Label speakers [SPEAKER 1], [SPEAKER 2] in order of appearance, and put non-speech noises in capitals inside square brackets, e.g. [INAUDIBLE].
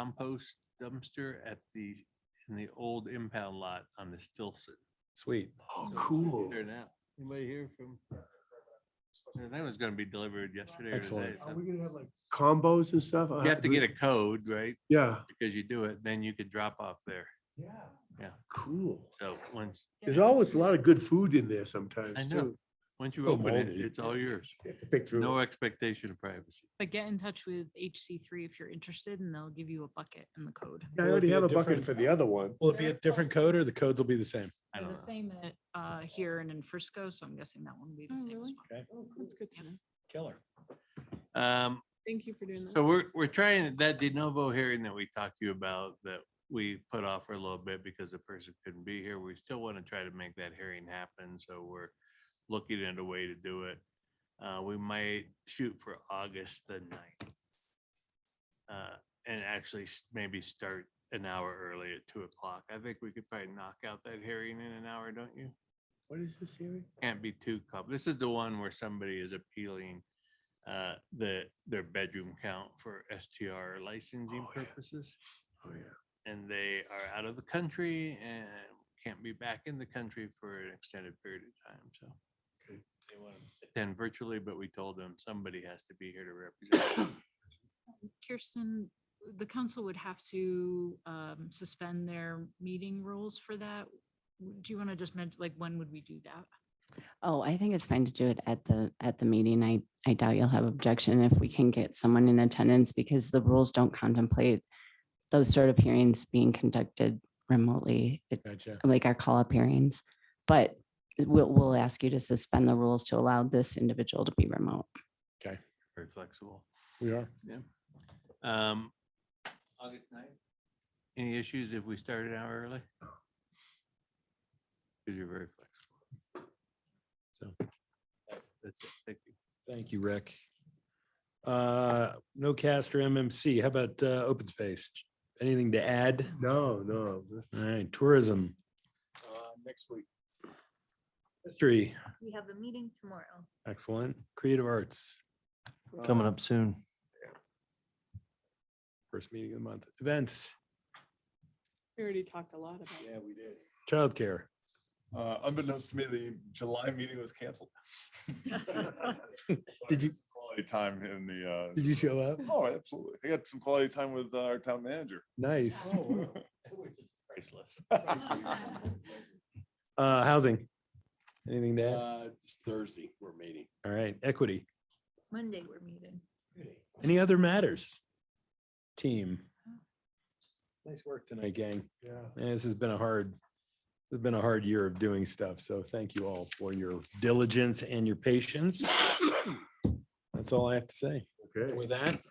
[SPEAKER 1] compost dumpster at the, in the old impound lot on the Stilson.
[SPEAKER 2] Sweet.
[SPEAKER 1] So it's right There now. Anybody hear from? That was gonna be delivered yesterday or today.
[SPEAKER 2] Excellent.
[SPEAKER 1] so-
[SPEAKER 3] gonna have like?
[SPEAKER 2] Combos and stuff?
[SPEAKER 1] You have to get a code, right?
[SPEAKER 2] Yeah,
[SPEAKER 1] Because you do it, then you could drop off there.
[SPEAKER 3] Yeah.
[SPEAKER 2] cool.
[SPEAKER 1] So once,
[SPEAKER 2] There's always a lot of good food in there
[SPEAKER 1] I
[SPEAKER 2] sometimes
[SPEAKER 1] know.
[SPEAKER 2] too.
[SPEAKER 1] once you
[SPEAKER 2] So
[SPEAKER 1] open it,
[SPEAKER 2] moldy.
[SPEAKER 1] it's all yours.
[SPEAKER 2] Pick through.
[SPEAKER 1] No expectation of privacy.
[SPEAKER 4] But get in touch with HC3 if you're interested and they'll give you a bucket and the code.
[SPEAKER 2] I
[SPEAKER 5] Will it
[SPEAKER 2] already
[SPEAKER 5] be a
[SPEAKER 2] have a bucket
[SPEAKER 5] different-
[SPEAKER 2] for the other one.
[SPEAKER 5] Will it be a different code or the codes will be the same?
[SPEAKER 1] I
[SPEAKER 4] They're
[SPEAKER 1] don't
[SPEAKER 4] The
[SPEAKER 1] know.
[SPEAKER 4] same at, uh, here and in Frisco, so I'm guessing that one will be the
[SPEAKER 6] Oh,
[SPEAKER 4] same as
[SPEAKER 6] really?
[SPEAKER 4] well.
[SPEAKER 6] That's good to know.
[SPEAKER 5] Killer.
[SPEAKER 1] Um,
[SPEAKER 6] Thank you for doing that.
[SPEAKER 1] so we're, we're trying that de novo hearing that we talked to you about that we put off for a little bit because the person couldn't be here. We still want to try to make that hearing happen. So we're looking at a way to do it. Uh, we might shoot for August the ninth. Uh, and actually s- maybe start an hour early at two o'clock. I think we could probably knock out that hearing in an hour, don't you?
[SPEAKER 2] What is this hearing?
[SPEAKER 1] can't be too com, this is the one where somebody is appealing uh, the, their bedroom count for STR licensing
[SPEAKER 2] Oh, yeah.
[SPEAKER 1] purposes.
[SPEAKER 2] Oh, yeah.
[SPEAKER 1] And they are out of the country and can't be back in the country for an extended period of time, so.
[SPEAKER 2] Okay.
[SPEAKER 1] They want to attend virtually, but we told them somebody has to be here to represent. them.
[SPEAKER 4] Um, Kirsten, the council would have to um, suspend their meeting rules for that. W- Do you want to just mention, like, when would we do that?
[SPEAKER 7] Oh, I think it's fine to do it at the, at the meeting. I, I doubt you'll have objection if we can get someone in attendance because the rules don't contemplate those sort of hearings being conducted remotely, it-
[SPEAKER 5] Gotcha.
[SPEAKER 7] like our call-up hearings. But we'll, we'll ask you to suspend the rules to allow this individual to be remote.
[SPEAKER 1] Very flexible.
[SPEAKER 5] We are.
[SPEAKER 1] Um, August ninth. Any issues if we start an hour early? Because you're very flexible.
[SPEAKER 5] So,
[SPEAKER 1] That- That's it. Thank you.
[SPEAKER 5] thank you, Rick. Uh, no cast or MMC. How about, uh, open space? Anything to add?
[SPEAKER 2] No, no. this-
[SPEAKER 5] All right, tourism.
[SPEAKER 8] Uh,
[SPEAKER 5] Next week. History,
[SPEAKER 9] We have a meeting tomorrow.
[SPEAKER 5] excellent. Creative arts,
[SPEAKER 8] coming up soon.
[SPEAKER 5] first meeting of the month. Events,
[SPEAKER 6] We already talked a lot about it.
[SPEAKER 3] we did.
[SPEAKER 5] childcare.
[SPEAKER 3] Uh, unbeknownst to me, the July meeting was canceled.
[SPEAKER 5] [LAUGHS] Did you-
[SPEAKER 3] Quality time in the, uh.
[SPEAKER 5] Did you show up?
[SPEAKER 3] Oh, absolutely. I had some quality time with uh, our town manager.
[SPEAKER 5] Nice.
[SPEAKER 1] Priceless.
[SPEAKER 3] [LAUGHS]
[SPEAKER 5] Uh, housing. Anything to add?
[SPEAKER 8] Uh, it's Thursday, we're meeting.
[SPEAKER 5] All right, equity.
[SPEAKER 9] Monday, we're meeting.
[SPEAKER 5] Any other matters? Team. Nice work tonight, gang.
[SPEAKER 2] Yeah.
[SPEAKER 5] Yeah, This has been a hard, this has been a hard year of doing stuff. So thank you all for your diligence and your patience. [COUGHS] That's all I have to say.
[SPEAKER 2] Okay.
[SPEAKER 5] And With that,